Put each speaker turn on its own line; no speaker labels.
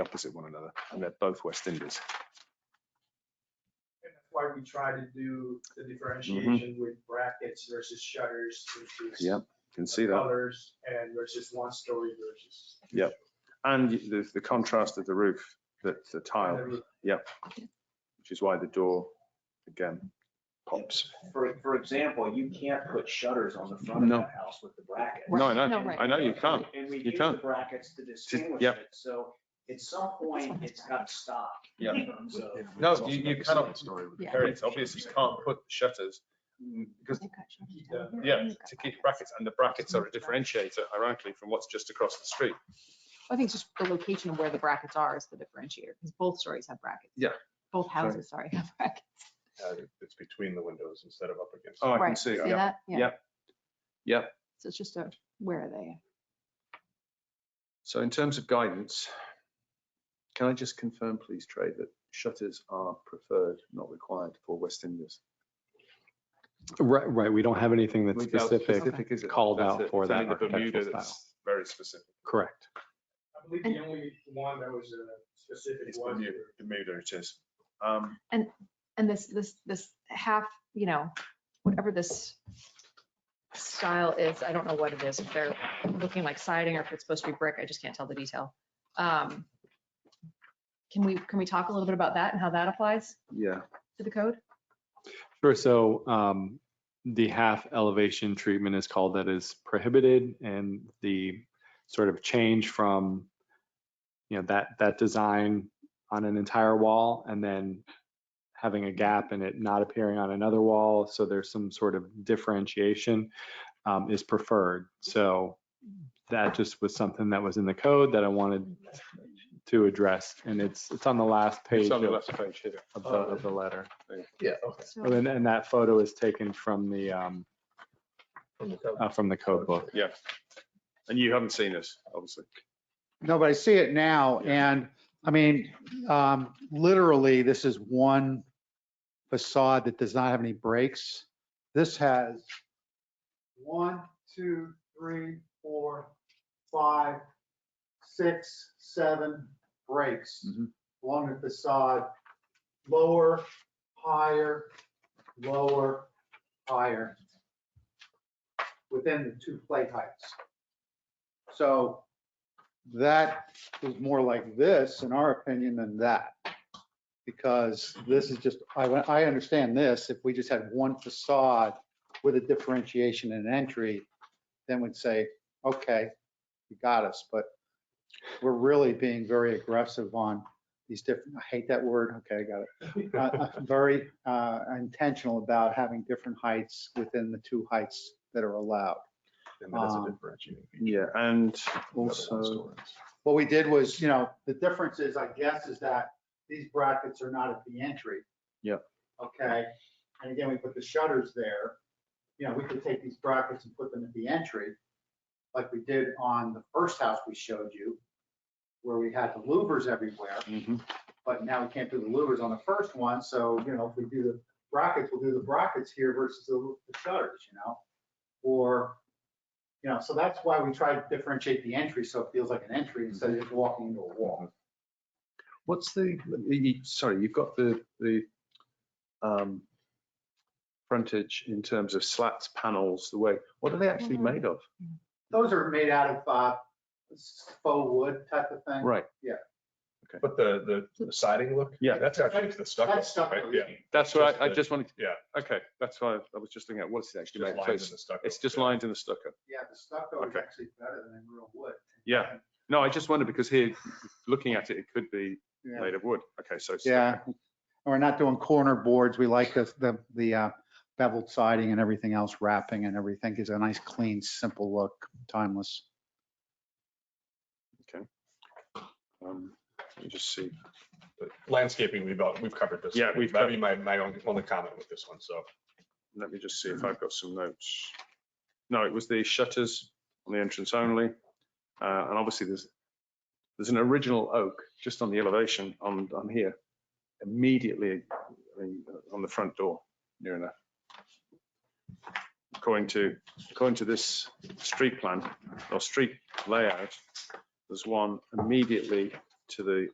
opposite one another, and they're both West Indies.
And that's why we try to do the differentiation with brackets versus shutters versus.
Mm-hmm. Yep, can see that.
Colors and versus one story versus. two
Yep. And the, the contrast of the roof, the, the
story.
tile, which is why the door, again, pops.
For, for example, you can't put shutters on the front of
No.
the house with the bracket.
No, I know,
No, right.
I know you can't.
And we
You
use the
can't.
brackets to distinguish
yep.
it, so at some point, it's got to stop.
Yep.
So,
No, you, you cannot,
Yeah.
Very- it's obvious you can't put the shutters, mm, because, yeah, to keep brackets, and the brackets are a differentiator, ironically, from what's just across the street.
I think it's just the location of where the brackets are is the differentiator, because both stories have brackets.
Yeah.
Both houses, sorry, have brackets.
uh, It's between the windows instead of up against.
Oh, I can
Right,
see, it, yeah.
that?
Yep. Yep.
So it's just a, where are they?
So in terms of guidance, can I just confirm, please, Trey, that shutters are preferred, not required for West Indies?
Right, right. We don't have anything that's
Without
specific,
specific
is it?
called
That's
out
it.
for
It's
that
only the Bermuda
architectural
that's
style.
Very specific.
correct?
I believe the only one that was a specific
It's
one.
Bermuda, Bermuda it is. Um,
And this, this, this half, you know, whatever this style is, I don't know what it is, if they're looking like siding or if it's supposed to be brick, I just can't tell the detail. Um, Can we, can we talk a little bit about that and how that applies
yeah,
to the code?
Sure. So um, the half elevation treatment is called that is prohibited and the sort of change from, you know, that, that design on an entire wall and then having a gap and it not appearing on another wall. So there's some sort of differentiation um, is preferred. So that just was something that was in the code that I wanted to address. And it's, it's on the last page
it's on the
of
left page here.
of the, of the letter.
Yeah, okay.
So-
And, and that photo is taken from the, um, uh, from the code book.
Yeah. And you haven't seen this, obviously.
No, but I see it now, and, I mean, um, literally, this is one facade that does not have any breaks. This has
One, two, three, four, five,
six, seven breaks
Mhm.
along the facade, lower, higher, lower, higher, within the two plate heights. So that is more like this, in our opinion, than that. Because this is just, I, I understand this, if we just had one facade with a differentiation and entry, then we'd say, okay, you got us, but we're really being very aggressive on these different, I hate that word, okay, I got it. Uh, uh, Very uh, intentional about having different heights within the two heights that are allowed.
And that's a
Um,
differentiating. feature.
Yeah, and
The other one's
also,
stories.
What we did was, you know, the difference is, I guess, is that these brackets are not at the entry.
Yep.
Okay, and again, we put the shutters there, you know, we could take these brackets and put them at the entry, like we did on the first house we showed you, where we had the louvers everywhere.
Mhm.
but now we can't do the louvers on the first one, so, you know, if we do the brackets, we'll do the brackets here versus the the shutters, you know? Or, you know, so that's why we try to differentiate the entry, so it feels like an entry instead of just walking into a wall.
what's the, you- sorry, you've got the, the um, frontage in terms of slats, panels, the way, what are they actually
Mhm.
made of?
Those are made out of, uh, faux wood type of thing.
Right,
But the, the- the siding look?
Yeah.
That's actually the stucco.
That's stucco,
right? Yeah.
yeah.
that's what I, I
Just the-
just wanted.
yeah.
Okay, that's why I was just looking at what's it actually
Just
made. of.
lines
So
in
It's
the stucco.
it's just
Yeah.
lined in the stucco.
Yeah, the stucco is
Okay.
actually better than real wood.
Yeah. No, I just wondered because here, looking at it, it could be
Yeah.
made of wood. Okay, so. it's-
Yeah, and we're not doing corner boards. We like the, the, the uh, beveled siding and everything else, wrapping and everything gives it a nice, clean, simple look, timeless.
um, Let me just see.
But Landscaping, we've, all- we've covered this.
Yeah,
already.
we've
That'd be my, my only only comment with this one, so.
Let me just see if I've got some notes. No, it was the shutters on the entrance only. Uh, and obviously there's, there's an original oak just on the elevation on, on here, immediately I mean, uh, on the front door, near enough. According to, according to this street plan or street layout, there's one immediately to the